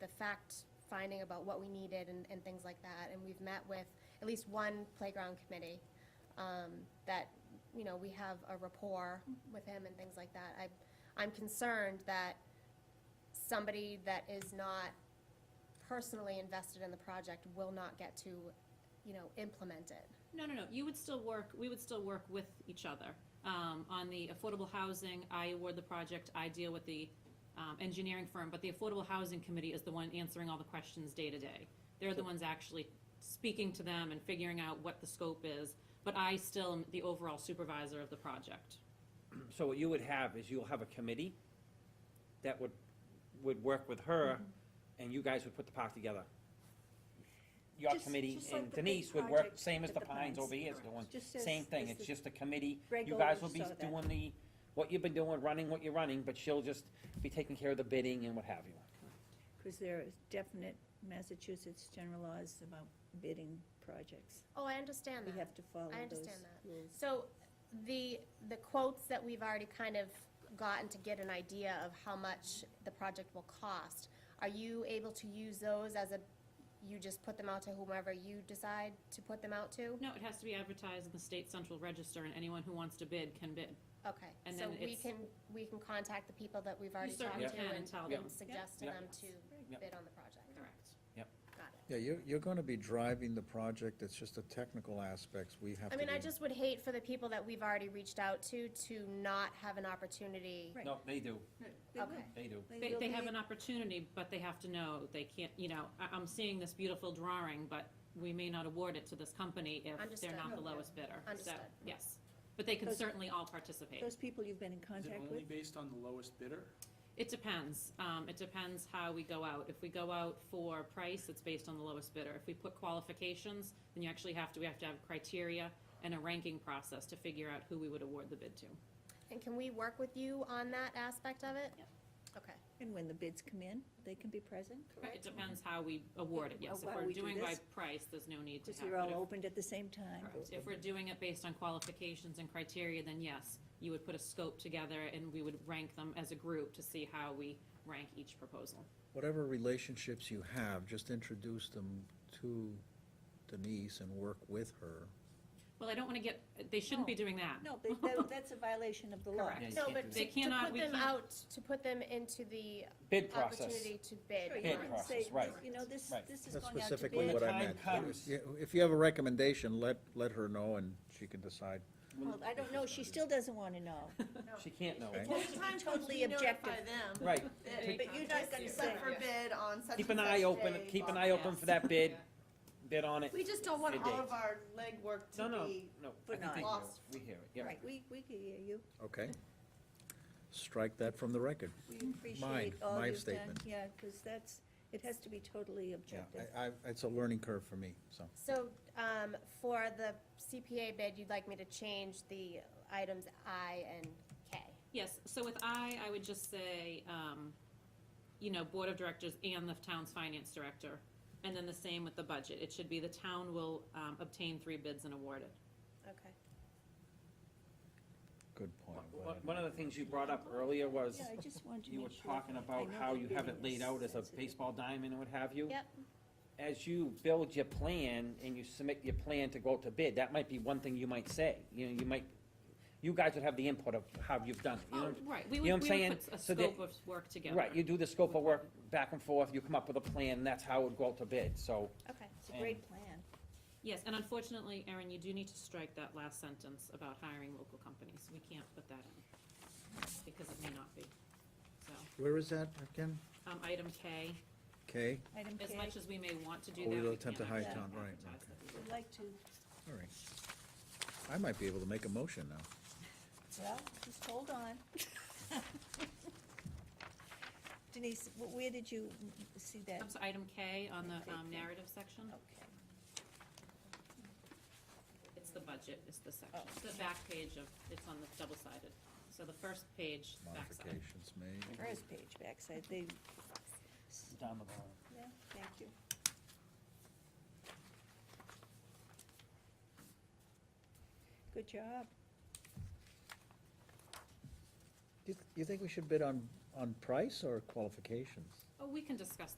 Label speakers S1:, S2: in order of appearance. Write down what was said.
S1: the fact finding about what we needed and, and things like that. And we've met with at least one playground committee, um, that, you know, we have a rapport with him and things like that. I, I'm concerned that somebody that is not personally invested in the project will not get to, you know, implement it.
S2: No, no, no, you would still work, we would still work with each other. Um, on the affordable housing, I award the project, I deal with the, um, engineering firm, but the Affordable Housing Committee is the one answering all the questions day to day. They're the ones actually speaking to them and figuring out what the scope is, but I still am the overall supervisor of the project.
S3: So what you would have is you'll have a committee that would, would work with her,
S4: Mm-hmm.
S3: and you guys would put the park together. Your
S4: Just-
S3: committee
S4: just like
S3: and
S4: the big
S3: Denise would work,
S4: project
S3: same as
S4: at
S3: the
S4: the
S3: Pines
S4: Pines,
S3: over here is
S4: correct.
S3: doing,
S4: Just as-
S3: same thing,
S4: as
S3: it's
S4: the
S3: just a committee.
S4: Greg
S3: You guys will
S4: Gold
S3: be
S4: saw that.
S3: doing the, what you've been doing, running what you're running, but she'll just be taking care of the bidding and what have you.
S4: Because there are definite Massachusetts general laws about bidding projects.
S1: Oh, I understand
S4: We
S1: that.
S4: have to follow
S1: I
S4: those
S1: understand that.
S4: rules.
S1: So the, the quotes that we've already kind of gotten to get an idea of how much the project will cost, are you able to use those as a, you just put them out to whomever you decide to put them out to?
S2: No, it has to be advertised in the state central register, and anyone who wants to bid can bid.
S1: Okay,
S2: And
S1: so
S2: then
S1: we
S2: it's-
S1: can, we can contact the people that we've
S2: You
S1: already talked
S2: certainly
S1: to
S2: can and
S1: and
S2: tell
S3: Yeah.
S2: them.
S1: suggest to
S3: Yeah.
S1: them to
S3: Yeah.
S1: bid on the project.
S2: Correct.
S1: Got it.
S5: Yeah, you're, you're gonna be driving the project, it's just the technical aspects we have to
S1: I
S5: do.
S1: mean, I just would hate for the people that we've already reached out to, to not have an opportunity.
S4: Right.
S3: No, they do,
S4: They will.
S1: Okay.
S3: they do.
S2: They,
S4: will
S2: they have
S4: be-
S2: an opportunity, but they have to know, they can't, you know, I, I'm seeing this beautiful drawing, but we may not award it to this company if
S1: Understood.
S2: they're not the
S4: Okay.
S2: lowest bidder. So,
S1: Understood.
S2: Yes, but they can
S4: Those-
S2: certainly all participate.
S4: Those people you've been in
S6: Is it
S4: contact
S6: only
S4: with?
S6: based on the lowest bidder?
S2: It depends, um, it depends how we go out. If we go out for price, it's based on the lowest bidder. If we put qualifications, then you actually have to, we have to have criteria and a ranking process to figure out who we would award the bid to.
S1: And can we work with you on that aspect of it?
S2: Yep.
S1: Okay.
S4: And when the bids come in, they can be present,
S2: It
S4: correct?
S2: depends how we award it, yes. If
S4: Well,
S2: we're
S4: we do
S2: doing by
S4: this.
S2: price, there's no need to have.
S4: Because they're
S2: but
S4: all
S2: if-
S4: opened at the same time.
S2: Correct. If we're doing it based on qualifications and criteria, then yes, you would put a scope together and we would rank them as a group to see how we rank each proposal.
S5: Whatever relationships you have, just introduce them to Denise and work with her.
S2: Well, I don't want to get, they shouldn't be
S4: No.
S2: doing that.
S4: No, but that, that's a violation of the law.
S2: Correct.
S3: You
S1: No,
S3: can't
S1: but
S3: do
S1: to,
S2: that.
S1: to
S2: Cannot-
S1: put
S2: we
S1: them
S2: can't-
S1: out, to put them into the
S3: Bid process.
S1: opportunity to
S4: Sure, you
S1: bid.
S3: Bid
S4: can
S3: process,
S4: say,
S3: right.
S4: You know, this,
S3: Right.
S4: this is
S5: That's
S4: going out to
S5: specifically
S4: bid.
S5: what
S3: When the
S5: I meant.
S3: time comes.
S5: Yeah, If you have a recommendation, let, let her know and she can decide.
S4: Well, I don't know, she still doesn't want to know.
S3: She can't know.
S5: Okay.
S7: Well, the time comes,
S4: Totally
S7: we notify
S4: objective.
S7: them.
S3: Right,
S7: that
S3: Take-
S4: But you're not gonna
S7: It's
S4: say.
S7: up for bid on such
S3: keep
S7: and
S3: an eye
S7: such
S3: open,
S7: day,
S3: keep an
S7: blah,
S3: eye
S7: blah.
S3: open for that bid, bid on it.
S7: We just don't want
S3: Bid
S7: all of
S3: date.
S7: our legwork
S3: No, no,
S7: to be,
S3: no.
S4: But
S3: I think they
S7: not.
S3: do. We hear it, yeah.
S4: Right, we, we can hear you.
S5: Okay? Strike that from the record.
S4: We appreciate all
S5: my
S4: you've done.
S5: statement.
S4: Yeah, because that's, it has to be totally
S5: Yeah,
S4: objective.
S5: I, I, it's a learning curve for me, so.
S1: So, um, for the CPA bid, you'd like me to change the items I and K?
S2: Yes, so with I, I would just say, um, you know, board of directors and the town's finance director. And then the same with the budget. It should be the town will, um, obtain three bids and award it.
S1: Okay.
S5: Good point.
S3: One- one- One of the things you brought up earlier was,
S4: Yeah, I just want to
S3: you were
S4: make sure.
S3: talking
S4: I
S3: about
S4: know
S3: how
S4: the
S3: you have it
S4: bidding
S3: laid
S4: is
S3: out as a
S4: sensitive.
S3: baseball diamond and what have you.
S1: Yep.
S3: As you build your plan and you submit your plan to go out to bid, that might be one thing you might say, you know, you might, you guys would have the input of how you've done it, you know?
S2: Oh, right, we
S3: you know
S2: would,
S3: what
S2: we
S3: I'm
S2: would
S3: saying?
S2: put a
S3: So that-
S2: scope of work together.
S3: Right, you do the scope of work back and forth, you come up with a plan, that's how it would go out to bid, so.
S1: Okay.
S4: It's a great plan.
S2: Yes, and unfortunately, Erin, you do need to strike that last sentence about hiring local companies. We can't put that in, because it may not be. So,
S5: Where is that again?
S2: um, item K,
S5: K?
S4: Item K,
S2: as much as we may want to do
S5: Oh,
S2: that,
S5: we
S2: we
S5: don't
S2: can't
S5: attempt to
S2: actually
S4: hide
S5: town, right,
S2: advertise
S5: okay.
S2: that.
S4: would like to,
S5: All right. I might be able to make a motion now.
S4: well, just hold on. Denise, wh- where did you mm, see that?
S2: Comes Um, item K on the,
S4: Okay,
S2: um,
S4: K. Oh.
S2: narrative section.
S4: Okay.
S2: It's the budget, is the section.
S4: Oh.
S2: It's the back page of, it's on the double-sided. So the first page, backside.
S5: Modifications made.
S4: First page, backside, they,
S3: Down the bottom.
S4: yeah, thank you. Good job.
S5: Do you- you think we should bid on, on price or qualifications?
S2: Oh, we can discuss